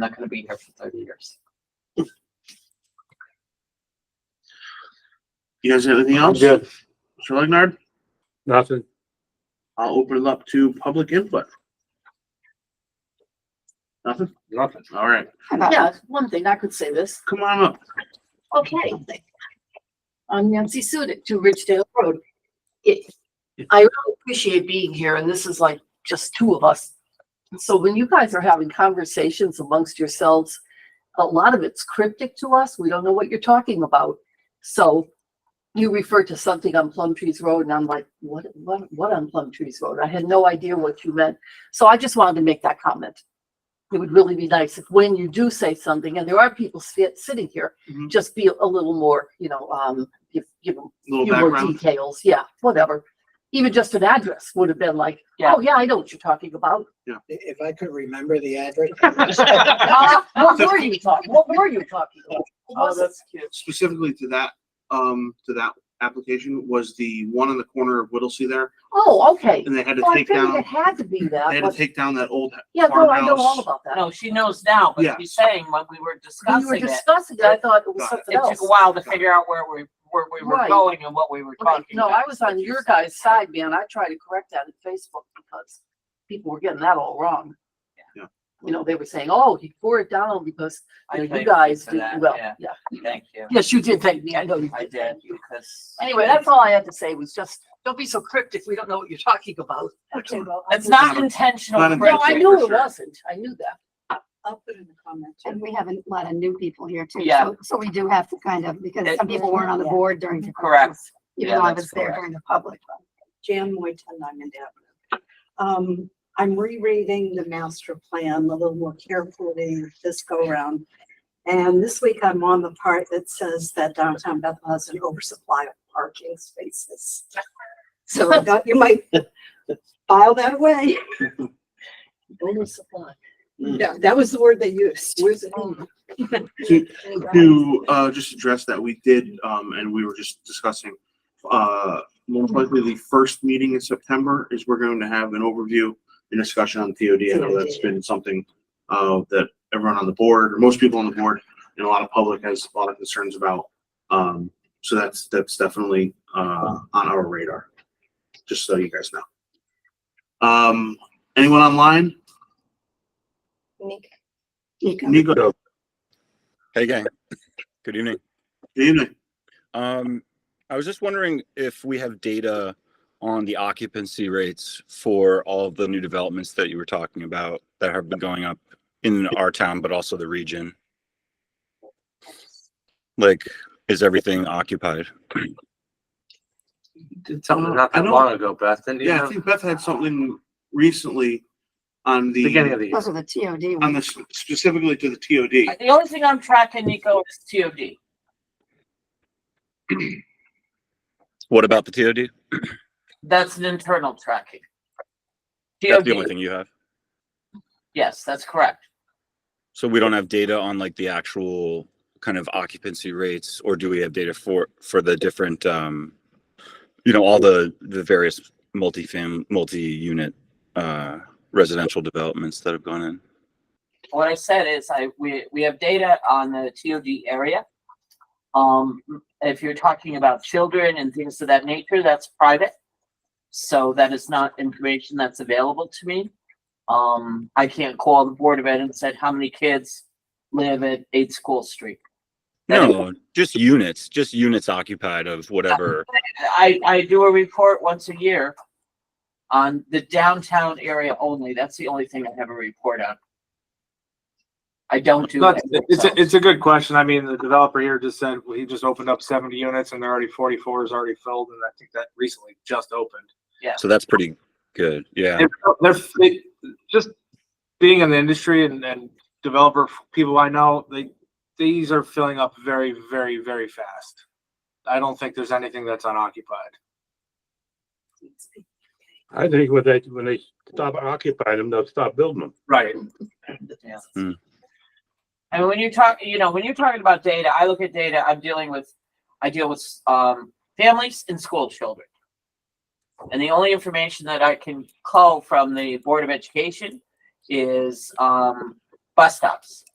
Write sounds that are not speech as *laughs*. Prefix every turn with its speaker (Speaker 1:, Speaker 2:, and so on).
Speaker 1: not gonna be here for thirty years.
Speaker 2: You guys have anything
Speaker 3: I'm
Speaker 2: else?
Speaker 3: good.
Speaker 2: Mr. Legnard,
Speaker 3: Nothing.
Speaker 2: I'll open it up to public input. Nothing?
Speaker 3: Nothing.
Speaker 2: All right,
Speaker 4: Yeah, one thing, I could say this.
Speaker 2: come on up.
Speaker 4: Okay. I'm Nancy Sudik to Ridgedale Road. It, I really appreciate being here and this is like just two of us. So when you guys are having conversations amongst yourselves, a lot of it's cryptic to us. We don't know what you're talking about. So you refer to something on Plum Trees Road and I'm like, what, what, what on Plum Trees Road? I had no idea what you meant. So I just wanted to make that comment. It would really be nice if when you do say something, and there are people sit, sitting here,
Speaker 2: Mhm.
Speaker 4: just be a little more, you know, um, give, give them
Speaker 2: Little
Speaker 4: few more
Speaker 2: background.
Speaker 4: details, yeah, whatever. Even just an address would have been like,
Speaker 1: Yeah.
Speaker 4: oh, yeah, I know what you're talking about.
Speaker 5: If I could remember the
Speaker 2: *laughs*
Speaker 5: address.
Speaker 4: Uh, What were you talking, what were you talking
Speaker 5: *laughs*
Speaker 4: about?
Speaker 1: Oh, that's cute.
Speaker 2: Specifically to that, um, to that application was the one on the corner of Whittlesey there,
Speaker 4: Oh, okay.
Speaker 2: and they had to
Speaker 4: Oh, I
Speaker 2: take
Speaker 4: figured it
Speaker 2: down,
Speaker 4: had to be
Speaker 2: they
Speaker 4: that,
Speaker 2: had to
Speaker 4: but,
Speaker 2: take down that old,
Speaker 4: yeah, no, I know all
Speaker 2: farmhouse.
Speaker 4: about that.
Speaker 1: No, she knows now, but
Speaker 2: Yeah.
Speaker 1: she's saying when we were
Speaker 4: When you were
Speaker 1: discussing it,
Speaker 4: discussing it, I thought it was
Speaker 2: Got it.
Speaker 4: something
Speaker 1: it took
Speaker 4: else.
Speaker 1: a while to figure out where we, where we were
Speaker 4: Right.
Speaker 1: going and what we were
Speaker 4: Okay,
Speaker 1: talking
Speaker 4: No,
Speaker 1: about.
Speaker 4: I was on your guys' side, man. I tried to correct that on Facebook because people were getting that all wrong.
Speaker 2: Yeah.
Speaker 4: You know, they were saying, oh, he tore it down because,
Speaker 1: I
Speaker 4: you know, you
Speaker 1: thank
Speaker 4: guys
Speaker 1: for
Speaker 4: did,
Speaker 1: that,
Speaker 4: well,
Speaker 1: yeah.
Speaker 4: yeah.
Speaker 1: Thank you.
Speaker 4: Yes, you did thank me. I know you
Speaker 1: I
Speaker 4: did.
Speaker 1: did,
Speaker 4: thank you.
Speaker 1: because.
Speaker 4: Anyway, that's all I had to say was just, don't be so cryptic. We don't know what you're talking about.
Speaker 2: That's all.
Speaker 4: Well, I
Speaker 1: It's
Speaker 4: will-
Speaker 1: not intentional.
Speaker 2: Not
Speaker 4: No, I
Speaker 2: intentional.
Speaker 1: correction.
Speaker 4: knew
Speaker 2: for
Speaker 4: it
Speaker 2: sure.
Speaker 4: wasn't. I knew that.
Speaker 6: I'll put in the comment.
Speaker 7: And we have a lot of new people here too.
Speaker 1: Yeah.
Speaker 7: so- So we do have to kind of, because
Speaker 1: It- Mm-hmm.
Speaker 7: some people weren't on the
Speaker 6: Yeah.
Speaker 7: board during. the
Speaker 1: Correct.
Speaker 7: conference, Even
Speaker 1: Yeah,
Speaker 7: though I
Speaker 1: that's
Speaker 7: was there
Speaker 1: correct.
Speaker 7: during the public.
Speaker 6: Jan Moy, ten Diamond Avenue. Um, I'm rereading the master plan a little more carefully this go around. And this week I'm on the part that says that downtown Bethel has an oversupply of parking spaces. So I thought you might file
Speaker 1: *laughs*
Speaker 6: that away.
Speaker 4: Oversupply.
Speaker 6: Yeah, that was the word they used. Where's it?
Speaker 2: to, uh, just address that, we did, um, and we were just discussing, uh, most likely the first meeting in September is we're going to have an overview and discussion on TOD. I know that's been something, uh, that everyone on the board, or most people on the board, and a lot of public has a lot of concerns about. Um, so that's, that's definitely, uh, on our radar, just so you guys know. Um, anyone online?
Speaker 7: Nico,
Speaker 2: Nico, good
Speaker 8: Hey, gang. Good evening.
Speaker 2: evening.
Speaker 8: Um, I was just wondering if we have data on the occupancy rates for all of the new developments that you were talking about that have been going up in our town, but also the region. Like, is everything occupied?
Speaker 3: Did something
Speaker 2: Uh,
Speaker 3: not
Speaker 2: I
Speaker 3: that
Speaker 2: don't-
Speaker 3: long ago, Beth, didn't you?
Speaker 2: Yeah, I think Beth had something recently on the.
Speaker 3: Beginning of the year.
Speaker 7: those are the TOD
Speaker 2: on
Speaker 7: ones.
Speaker 2: this specifically to the TOD.
Speaker 1: The only thing I'm tracking, Nico, is TOD.
Speaker 8: What about the TOD?
Speaker 1: That's an internal tracking.
Speaker 8: That's the only
Speaker 1: TOD,
Speaker 8: thing you have.
Speaker 1: yes, that's correct.
Speaker 8: So we don't have data on like the actual kind of occupancy rates, or do we have data for, for the different, um, you know, all the, the various multifam, multi-unit, uh, residential developments that have gone in?
Speaker 1: What I said is I, we, we have data on the TOD area. Um, if you're talking about children and things of that nature, that's private. So that is not information that's available to me. Um, I can't call the Board of Ed and said, how many kids live at eight School Street? That is-
Speaker 8: No, just units, just units occupied of whatever.
Speaker 1: I, I do a report once a year on the downtown area only. That's the only thing I have a report on. I don't do.
Speaker 3: Not-
Speaker 1: anything
Speaker 3: It's, a-
Speaker 1: else.
Speaker 3: it's a good question. I mean, the developer here just said, well, he just opened up seventy units and they're already forty-four is already filled, and I think that recently just opened.
Speaker 8: So that's pretty good. Yeah.
Speaker 3: And They're, they, just being in the industry and, and developer f- people I know, they, these are filling up very, very, very fast. I don't think there's anything that's unoccupied.
Speaker 9: I think when they, when they stop occupying them, they'll stop building them.
Speaker 3: Right.
Speaker 1: And when you talk, you know, when you're talking about data, I look at data, I'm dealing with, I deal with, um, families and school children. And the only information that I can call from the Board of Education is, um, bus stops.